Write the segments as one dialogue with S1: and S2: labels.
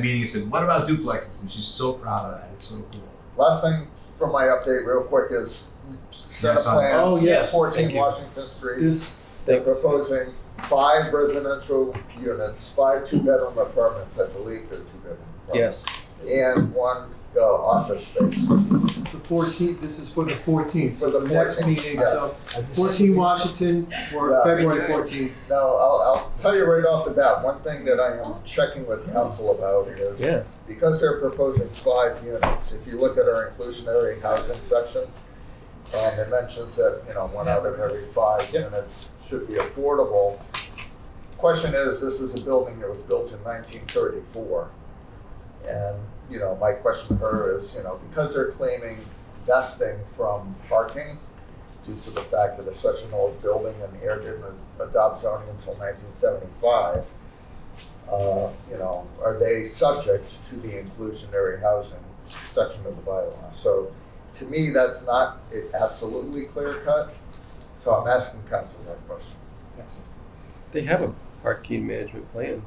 S1: meeting and said, "What about duplexes?" And she's so proud of that. It's so cool.
S2: Last thing from my update, real quick, is set of
S1: Yes, I-
S2: plans.
S3: Oh, yes.
S2: Fourteen
S3: Thank you.
S2: Washington Street.
S3: This,
S2: They're proposing five residential units, five two-bedroom apartments, I believe they're two-bedroom. apartments,
S3: yes,
S2: And one uh, office space.
S3: this is the fourteenth, this is for the fourteenth, so
S2: For
S3: the
S2: the
S3: next
S2: 14th,
S3: meeting,
S2: yes.
S3: so fourteen Washington for
S2: Yeah.
S3: February
S1: Yes.
S3: fourteenth.
S2: Now, I'll, I'll tell you right off the bat, one thing that I am checking with council about is
S3: Yeah.
S2: because they're proposing five units, if you look at our inclusionary housing section, um, it mentions that, you know, one out of every five units should be affordable. Question is, this is a building that was built in nineteen thirty-four. And, you know, my question to her is, you know, because they're claiming vesting from parking due to the fact that it's such an old building and air didn't adopt zoning until nineteen seventy-five, uh, you know, are they subject to the inclusionary housing section of the bylaw? So to me, that's not it- absolutely clear cut, so I'm asking council that question.
S4: They have a parking management plan.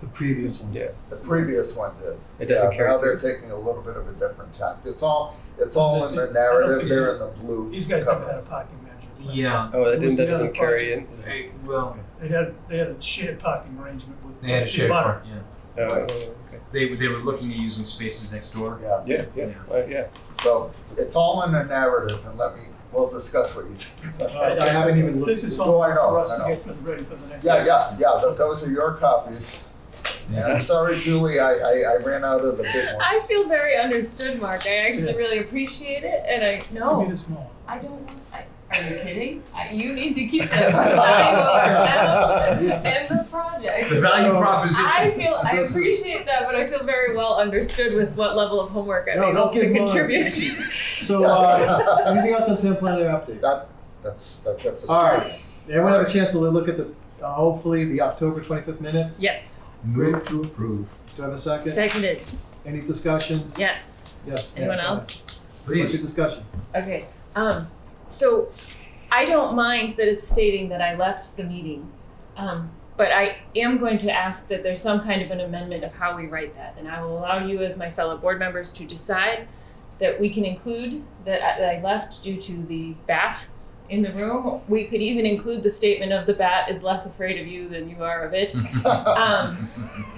S3: The previous one.
S4: Yeah.
S2: The previous one did.
S4: It doesn't
S2: Yeah,
S4: carry
S2: Now
S4: through.
S2: they're taking a little bit of a different tact. It's all, it's all in the narrative, they're in the blue.
S5: These guys never
S2: cover.
S5: had a parking management. plan.
S1: Yeah.
S4: Oh, that
S5: It
S4: didn't,
S5: was
S4: that
S5: the
S4: doesn't
S5: other
S4: carry in. This is-
S1: Hey, well,
S5: They had, they had a shared parking arrangement with.
S1: they had a
S5: the
S1: shared
S5: butter.
S1: part. Yeah.
S4: Oh, okay.
S1: They they were looking at using spaces next door.
S2: Yeah,
S4: Yeah, yeah, uh, yeah.
S2: so it's all in the narrative, and let me, we'll discuss what you think.
S5: Uh,
S3: I I haven't even looked.
S5: This is
S2: Oh,
S5: all
S2: I know,
S5: for us
S2: I
S5: to
S2: know.
S5: get ready for the next.
S2: Yeah, yeah, yeah, th- those are your copies. And I'm sorry, Julie, I, I, I ran out of the big
S6: I
S2: ones.
S6: feel very understood, Mark. I actually really appreciate it, and I
S5: Give me
S6: no,
S5: this more.
S6: I don't. want- I, are you kidding? I, you need to keep this value over town and the project.
S1: The value
S3: So-
S1: proposition.
S6: I feel I appreciate that, but I feel very well understood with what level of homework I'm
S3: No,
S6: able
S3: don't
S6: to
S3: give Mark-
S6: contribute.
S3: So, uh, anything else on ten planner update?
S2: That, that's, that's, that's.
S3: All right, everyone have a chance to look at the, uh, hopefully, the October twenty-fifth minutes?
S6: yes,
S1: Move to approve.
S3: Do I have a second?
S6: seconded.
S3: Any discussion?
S6: Yes.
S3: Yes.
S6: Anyone
S3: ma'am.
S6: else?
S3: What's the
S1: Please.
S3: discussion?
S6: Okay. Um, so I don't mind that it's stating that I left the meeting, um, but I am going to ask that there's some kind of an amendment of how we write that, and I will allow you as my fellow board members to decide that we can include that I, that I left due to the bat in the room. We could even include the statement of the bat is less afraid of you than you are of it um,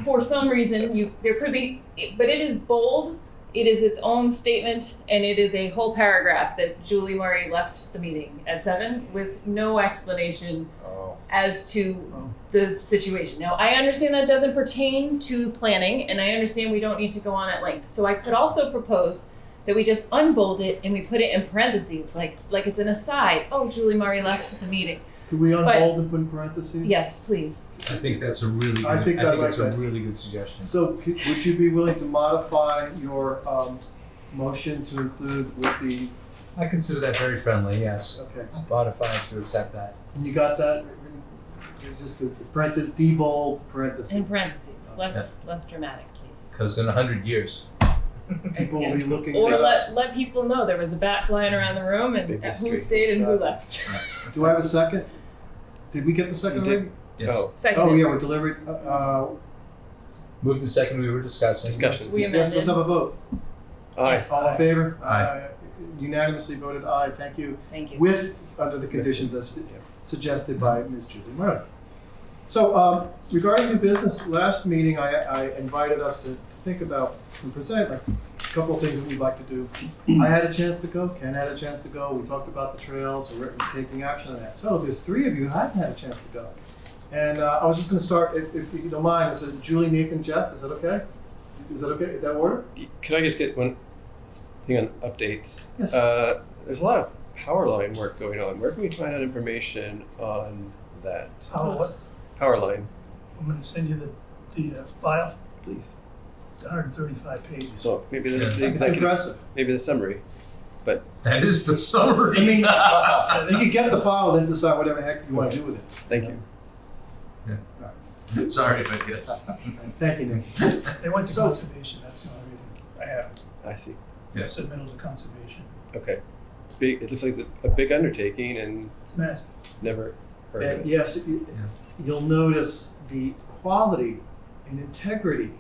S6: for some reason you there could be but it is bold it is its own statement and it is a whole paragraph that julie murray left the meeting at seven with no explanation
S2: Oh,
S6: as to the situation now i understand that doesn't pertain to planning and i understand we don't need to go on at length so i could also propose that we just unbold it and we put it in parentheses like like it's an aside oh julie murray left the meeting
S3: Could we
S6: But-
S3: unhold and put in parentheses?
S6: yes please
S1: I think that's a really. Good,
S3: I think I'd like
S1: that's a
S3: that.
S1: really good suggestion.
S3: So could, would you be willing to modify your, um, motion to include with the,
S1: I consider that very friendly. Yes.
S3: okay,
S1: Modified to accept that.
S3: you got that? Just the parentheses, debold parentheses.
S6: in parentheses less less dramatic please
S1: Because in a hundred years,
S3: People will be looking.
S6: Or
S3: that up.
S6: let, let people know there was a bat flying around the room and
S4: Big
S6: who
S4: mystery.
S6: stayed and who left.
S3: Do I have a second? Did we get the second
S4: You did.
S3: already?
S1: yes.
S4: Oh,
S6: Second.
S3: Oh, yeah, we're deliberate, uh, uh,
S1: Move the second we were discussing.
S4: Discussion.
S6: We
S3: yes, let's
S6: amended.
S3: have a vote.
S4: aye.
S3: All in favor?
S1: Aye.
S3: Uh, Unanimously voted aye, thank you,
S6: Thank you.
S3: with, under the conditions as suggested by Ms. Julie Murray. So, um, regarding new business, last meeting, I, I invited us to think about and present like a couple of things that we'd like to do. I had a chance to go, Ken had a chance to go, we talked about the trails, we're taking action on that. So there's three of you who hadn't had a chance to go. And uh, I was just gonna start, if, if you don't mind, is it Julie, Nathan, Jeff, is that okay? Is that okay, is that order?
S4: Could I just get one thing on updates?
S3: Yes.
S4: Uh, there's a lot of power line work going on. Where can we find out information on that?
S5: Power what?
S4: Power line,
S5: I'm gonna send you the, the uh, file,
S4: please.
S5: it's hundred and thirty-five pages.
S4: So maybe the, the
S1: Yeah.
S3: It's
S4: executive,
S3: impressive.
S4: maybe the summary.
S1: That is the summary.
S3: I mean-
S2: Oh.
S1: yeah.
S5: Uh,
S3: You can get the file, then decide whatever heck you wanna do with it.
S4: Thank you.
S1: Sorry, but yes.
S3: Thank you, Nathan.
S5: They went to
S3: So-
S5: conservation, that's the only reason I have it.
S4: I see.
S1: Yes.
S5: submitted to conservation.
S4: Okay. Big, it looks like it's a, a big undertaking and
S5: It's massive.
S4: never heard of
S3: And
S4: it.
S3: yes, you-
S1: Yeah.
S3: you'll notice the quality and integrity